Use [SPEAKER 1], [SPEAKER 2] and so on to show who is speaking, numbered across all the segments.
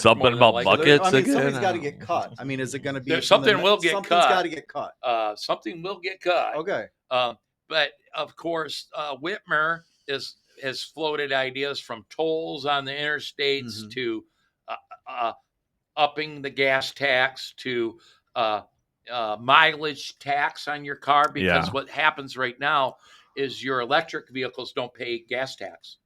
[SPEAKER 1] Something about
[SPEAKER 2] more than likely.
[SPEAKER 1] bucket? Buckets
[SPEAKER 3] I mean,
[SPEAKER 1] again?
[SPEAKER 3] something's got to get cut. I mean, is it going to be
[SPEAKER 2] There-
[SPEAKER 3] from the
[SPEAKER 2] something
[SPEAKER 3] ne-
[SPEAKER 2] will get
[SPEAKER 3] something's
[SPEAKER 2] cut.
[SPEAKER 3] got to get cut.
[SPEAKER 2] Uh, something will get cut.
[SPEAKER 3] Okay.
[SPEAKER 2] Um, but of course, uh, Whitmer is has floated ideas from tolls on the interstates
[SPEAKER 1] Mm-hmm.
[SPEAKER 3] Mhm.
[SPEAKER 2] to uh, uh, upping the gas tax to uh, uh, mileage tax on your car because
[SPEAKER 1] Yeah.
[SPEAKER 2] what happens right now is your electric vehicles don't pay gas tax,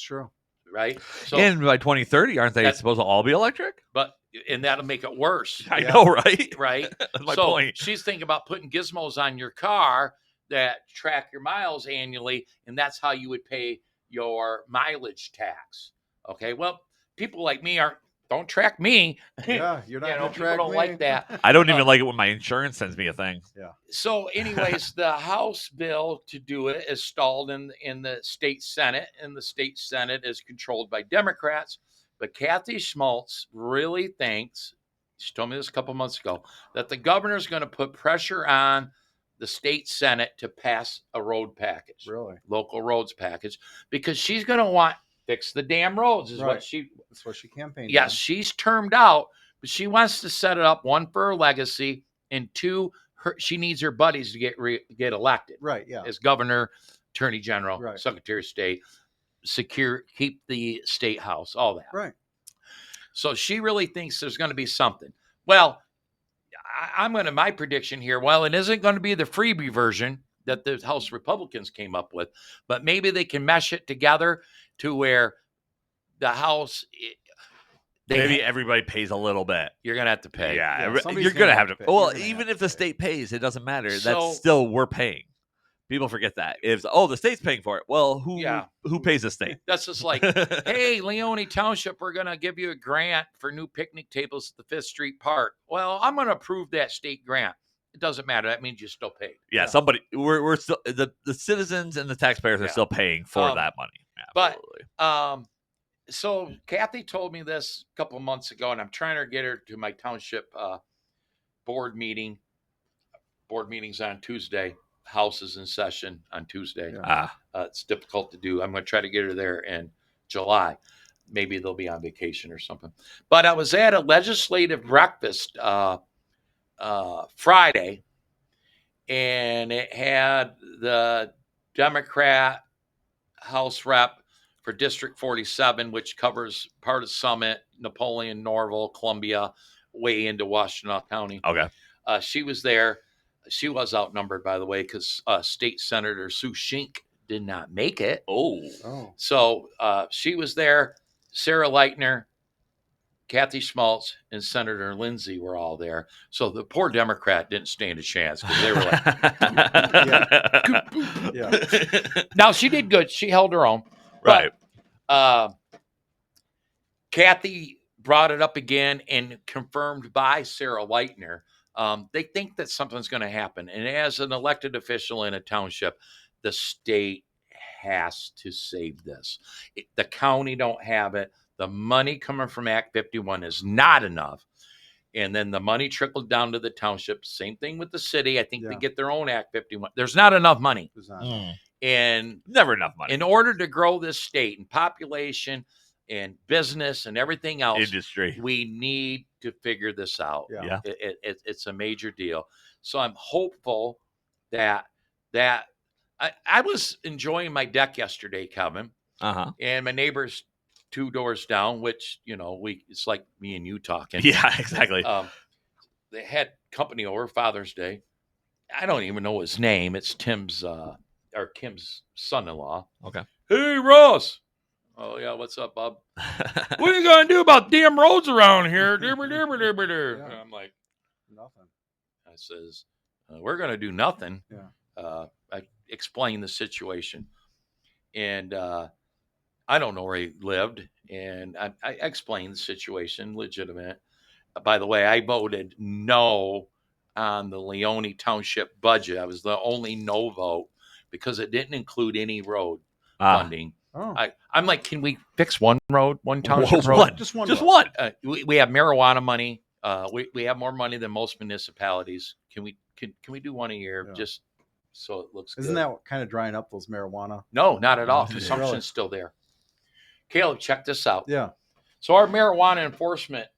[SPEAKER 3] true.
[SPEAKER 2] right? So,
[SPEAKER 1] and by 2030, aren't they
[SPEAKER 2] That-
[SPEAKER 1] supposed to all be electric?
[SPEAKER 2] but and that'll make it worse,
[SPEAKER 1] I
[SPEAKER 3] Yeah.
[SPEAKER 1] know, right?
[SPEAKER 2] right?
[SPEAKER 1] That's my
[SPEAKER 2] so
[SPEAKER 1] point.
[SPEAKER 2] she's thinking about putting gizmos on your car that track your miles annually, and that's how you would pay your mileage tax. Okay, well, people like me aren't don't track me.
[SPEAKER 3] Yeah, you're not
[SPEAKER 2] You know,
[SPEAKER 3] going to
[SPEAKER 2] people
[SPEAKER 3] track
[SPEAKER 2] don't
[SPEAKER 3] me.
[SPEAKER 2] like that.
[SPEAKER 1] I don't
[SPEAKER 2] uh,
[SPEAKER 1] even like it when my insurance sends me a thing.
[SPEAKER 2] So, anyways, the House bill to do it is stalled in in the state Senate, and the state Senate is controlled by Democrats. But Kathy Schmaltz really thinks she told me this a couple months ago that the governor's going to put pressure on the state Senate to pass a road package,
[SPEAKER 3] Really?
[SPEAKER 2] local roads package, because she's going to want fix the damn roads is
[SPEAKER 3] Right.
[SPEAKER 2] what she
[SPEAKER 3] That's what she campaigned.
[SPEAKER 2] Yes, she's termed out, but she wants to set it up one for her legacy, and two, her she needs her buddies to get re, get elected
[SPEAKER 3] on. Right. Yeah.
[SPEAKER 2] as governor, attorney general,
[SPEAKER 3] Right.
[SPEAKER 2] secretary of state, secure, keep the state house, all that.
[SPEAKER 3] Right.
[SPEAKER 2] So she really thinks there's going to be something. Well, I, I'm going to my prediction here. Well, it isn't going to be the freebie version that the House Republicans came up with, but maybe they can mesh it together to where the House. i- They
[SPEAKER 1] Maybe everybody pays a little bit.
[SPEAKER 2] you're gonna have to pay.
[SPEAKER 1] Yeah, every-
[SPEAKER 3] somebody's
[SPEAKER 1] you're
[SPEAKER 3] gonna
[SPEAKER 1] gonna
[SPEAKER 3] have
[SPEAKER 1] have
[SPEAKER 3] to
[SPEAKER 1] to.
[SPEAKER 3] pay. You're
[SPEAKER 1] Well,
[SPEAKER 3] gonna have
[SPEAKER 1] even
[SPEAKER 3] to
[SPEAKER 1] if the
[SPEAKER 3] pay.
[SPEAKER 1] state pays, it doesn't matter.
[SPEAKER 2] So-
[SPEAKER 1] That's still we're paying. People forget that. If oh, the state's paying for it. Well, who
[SPEAKER 2] Yeah.
[SPEAKER 1] who pays the state?
[SPEAKER 2] That's just like, hey, Leone Township, we're gonna give you a grant for new picnic tables at the Fifth Street Park. Well, I'm gonna approve that state grant. It doesn't matter. That means you still paid.
[SPEAKER 1] yeah, somebody we're we're still the, the citizens and the taxpayers are
[SPEAKER 2] Yeah.
[SPEAKER 1] still paying for
[SPEAKER 2] Um,
[SPEAKER 1] that money.
[SPEAKER 2] but-
[SPEAKER 1] Absolutely.
[SPEAKER 2] Um, so Kathy told me this a couple months ago, and I'm trying to get her to my township uh, board meeting. Board meetings on Tuesday. House is in session on Tuesday.
[SPEAKER 3] Yeah.
[SPEAKER 1] Ah,
[SPEAKER 2] Uh, it's difficult to do. I'm going to try to get her there in July. Maybe they'll be on vacation or something. But I was at a legislative breakfast uh, uh, Friday, and it had the Democrat House rep for District 47, which covers part of Summit, Napoleon, Norval, Columbia, way into Washtenaw County.
[SPEAKER 1] okay.
[SPEAKER 2] Uh, she was there. She was outnumbered, by the way, because uh, State Senator Sue Shink did not make it.
[SPEAKER 1] Oh,
[SPEAKER 3] Oh.
[SPEAKER 2] So uh, she was there. Sarah Leitner, Kathy Schmaltz, and Senator Lindsay were all there. So the poor Democrat didn't stand a chance because they were like,
[SPEAKER 3] Yeah.
[SPEAKER 2] now she did good. She held her own.
[SPEAKER 1] right.
[SPEAKER 2] Uh, Kathy brought it up again and confirmed by Sarah Leitner. Um, they think that something's going to happen. And as an elected official in a township, the state has to save this. It- the county don't have it. The money coming from Act 51 is not enough. And then the money trickled down to the township. Same thing with the city. I think they
[SPEAKER 3] Yeah.
[SPEAKER 2] get their own Act 51. There's not enough money.
[SPEAKER 3] It's not-
[SPEAKER 1] Mm.
[SPEAKER 2] And
[SPEAKER 1] Never enough money.
[SPEAKER 2] in order to grow this state and population and business and everything else,
[SPEAKER 1] Industry.
[SPEAKER 2] we need to figure this out.
[SPEAKER 3] Yeah.
[SPEAKER 1] Yeah.
[SPEAKER 2] It- it- it- it's a major deal. So I'm hopeful that that I, I was enjoying my deck yesterday, Kevin,
[SPEAKER 1] Uh huh.
[SPEAKER 2] and my neighbors two doors down, which you know we it's like me and you talking.
[SPEAKER 1] Yeah. Exactly.
[SPEAKER 2] Um, they had company over Father's Day. I don't even know his name. It's Tim's uh, or Kim's son-in-law.
[SPEAKER 1] Okay.
[SPEAKER 2] Hey Ross. Oh yeah, what's up, Bob? what are you gonna do about damn roads around here? Dibber, dibber, dibber, der.
[SPEAKER 3] Yeah.
[SPEAKER 2] And I'm like,
[SPEAKER 3] Nothing.
[SPEAKER 2] I says, uh, we're gonna do nothing.
[SPEAKER 3] Yeah.
[SPEAKER 2] Uh, I explained the situation, and uh, I don't know where he lived, and I, I explained the situation, legitimate. By the way, I voted no on the Leone Township budget. I was the only no vote because it didn't include any road
[SPEAKER 1] Ah.
[SPEAKER 2] funding.
[SPEAKER 3] Oh.
[SPEAKER 2] I, I'm like, can we fix one road, one township
[SPEAKER 1] Whoa,
[SPEAKER 2] road?
[SPEAKER 1] what?
[SPEAKER 3] Just one.
[SPEAKER 1] Just
[SPEAKER 3] vote.
[SPEAKER 1] one.
[SPEAKER 2] Uh, we, we have marijuana money. Uh, we, we have more money than most municipalities. Can we can, can we do one a year
[SPEAKER 3] Yeah.
[SPEAKER 2] just so it looks?
[SPEAKER 3] Isn't
[SPEAKER 2] good?
[SPEAKER 3] that kind of drying up those marijuana?
[SPEAKER 2] no, not at all.
[SPEAKER 1] Really?
[SPEAKER 2] Consumption's still there. Caleb, check this out.
[SPEAKER 3] Yeah.
[SPEAKER 2] So our marijuana enforcement